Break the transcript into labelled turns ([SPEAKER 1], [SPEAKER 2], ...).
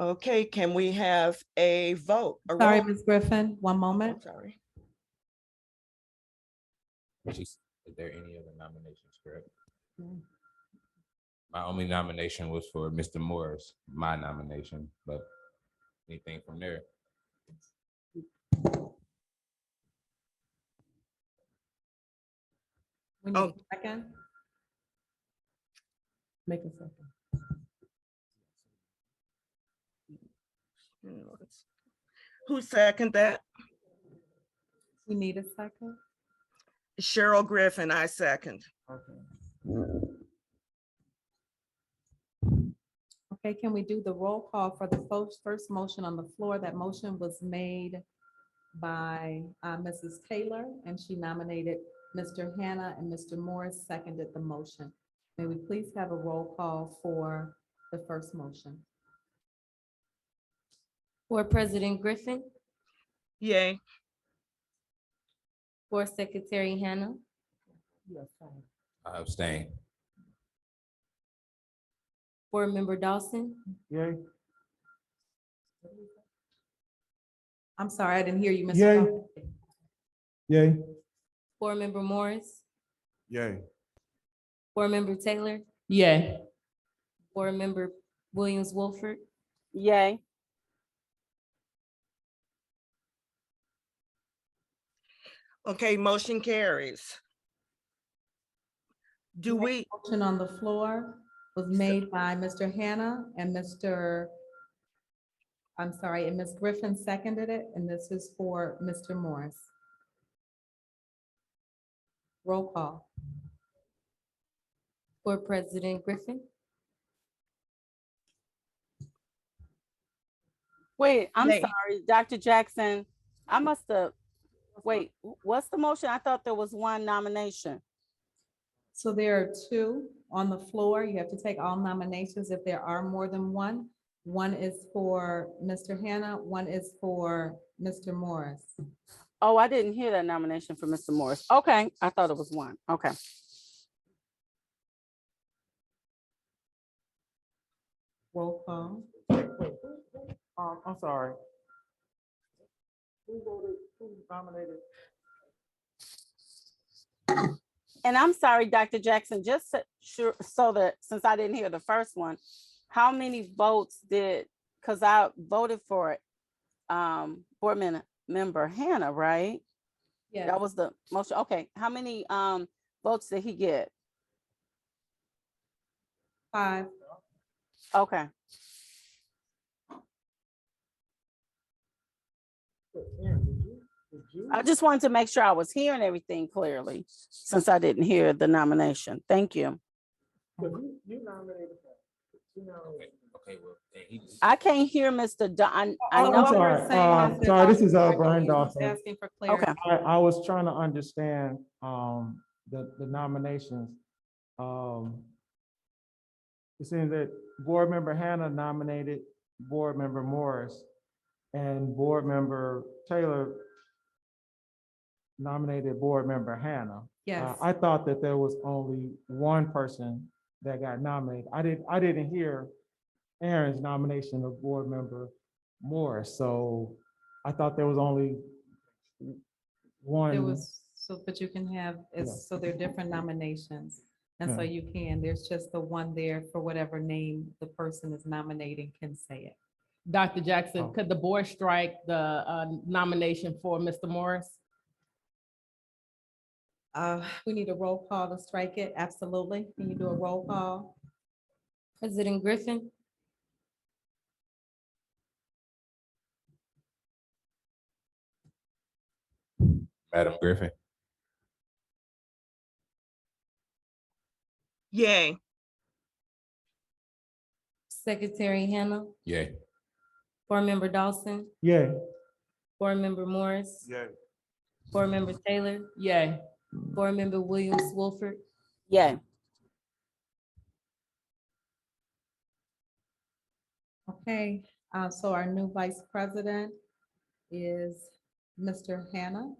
[SPEAKER 1] Okay, can we have a vote? A
[SPEAKER 2] Sorry,
[SPEAKER 1] roll-
[SPEAKER 2] Ms. Griffin, one
[SPEAKER 1] I'm
[SPEAKER 2] moment.
[SPEAKER 1] Sorry.
[SPEAKER 3] Just, is there any other nominations, correct? My only nomination was for Mr. Morris, my nomination, but anything from there?
[SPEAKER 2] We
[SPEAKER 1] Oh.
[SPEAKER 2] need a Second. Make a second.
[SPEAKER 1] Who second that?
[SPEAKER 2] We need a second.
[SPEAKER 1] Cheryl Griffin, I second.
[SPEAKER 2] Okay, can we do the roll call for the fo- first motion on the floor? That motion was made by uh, Mrs. Taylor, and she nominated Mr. Hannah, and Mr. Morris seconded the motion. May we please have a roll call for the first motion?
[SPEAKER 4] Board President Griffin,
[SPEAKER 1] Yay.
[SPEAKER 4] Board Secretary Hannah,
[SPEAKER 3] I abstain.
[SPEAKER 4] Board Member Dawson,
[SPEAKER 2] I'm sorry, I didn't hear you, Mr.
[SPEAKER 5] Yay.
[SPEAKER 2] Dawson.
[SPEAKER 5] Yay.
[SPEAKER 4] Board Member Morris,
[SPEAKER 5] Yay.
[SPEAKER 4] Board Member Taylor,
[SPEAKER 6] Yay.
[SPEAKER 4] Board Member Williams Wolford,
[SPEAKER 6] Yay.
[SPEAKER 1] Okay, motion carries. Do we,
[SPEAKER 2] Motion on the floor was made by Mr. Hannah and Mr. I'm sorry, and Ms. Griffin seconded it, and this is for Mr. Morris. Roll call.
[SPEAKER 4] Board President Griffin,
[SPEAKER 6] Wait, I'm
[SPEAKER 1] Yay.
[SPEAKER 6] sorry, Dr. Jackson. I must have, wait, wh- what's the motion? I thought there was one nomination.
[SPEAKER 2] So there are two on the floor. You have to take all nominations if there are more than one. One is for Mr. Hannah, one is for Mr. Morris.
[SPEAKER 6] Oh, I didn't hear that nomination for Mr. Morris. Okay, I thought it was one. Okay.
[SPEAKER 2] Roll call.
[SPEAKER 7] Um, I'm sorry. Who voted, who nominated?
[SPEAKER 6] And I'm sorry, Dr. Jackson, just so- sure, so that, since I didn't hear the first one, how many votes did, because I voted for it, um, board men- member Hannah, right?
[SPEAKER 2] Yeah,
[SPEAKER 6] That was the motion. Okay, how many, um, votes did he get?
[SPEAKER 2] five.
[SPEAKER 6] Okay, I just wanted to make sure I was hearing everything clearly, since I didn't hear the nomination. Thank you.
[SPEAKER 7] You nominated. her. You nominated her.
[SPEAKER 3] Okay, well, and he just-
[SPEAKER 6] I can't hear Mr. Don, I
[SPEAKER 7] Oh,
[SPEAKER 2] What
[SPEAKER 6] know.
[SPEAKER 7] I'm
[SPEAKER 2] we're
[SPEAKER 7] sorry.
[SPEAKER 2] saying
[SPEAKER 7] Uh,
[SPEAKER 2] is that
[SPEAKER 7] sorry, this
[SPEAKER 2] Dr.
[SPEAKER 7] is, uh,
[SPEAKER 2] Jackson
[SPEAKER 7] Brian
[SPEAKER 2] was
[SPEAKER 7] Dawson. Uh,
[SPEAKER 2] Asking for clarity.
[SPEAKER 6] Okay,
[SPEAKER 7] I, I was trying to understand, um, the, the nominations. Um, It seems that Board Member Hannah nominated Board Member Morris and Board Member Taylor nominated Board Member Hannah. Uh,
[SPEAKER 2] Yes.
[SPEAKER 7] I thought that there was only one person that got nominated. I didn't, I didn't hear Aaron's nomination of board member Morris, so I thought there was only
[SPEAKER 2] There
[SPEAKER 7] one.
[SPEAKER 2] was, so, but you can have, it's, so there are different nominations. And so
[SPEAKER 7] Yeah.
[SPEAKER 2] you can, there's just the one there for whatever name the person is nominating can say it.
[SPEAKER 6] Dr.
[SPEAKER 7] Oh.
[SPEAKER 6] Jackson, could the board strike the uh, nomination for Mr. Morris?
[SPEAKER 2] Uh, we need a roll call to strike it, absolutely. Can you do a roll call?
[SPEAKER 4] President Griffin,
[SPEAKER 3] Madam Griffin,
[SPEAKER 1] yay.
[SPEAKER 4] Secretary Hannah,
[SPEAKER 3] yay.
[SPEAKER 4] Board Member Dawson,
[SPEAKER 7] Yeah,
[SPEAKER 4] Board Member Morris. Board Member Taylor,
[SPEAKER 6] Yay.
[SPEAKER 4] Board Member Williams Wolford,
[SPEAKER 6] Yay.
[SPEAKER 2] Okay, uh, so our new vice president is Mr. Hannah.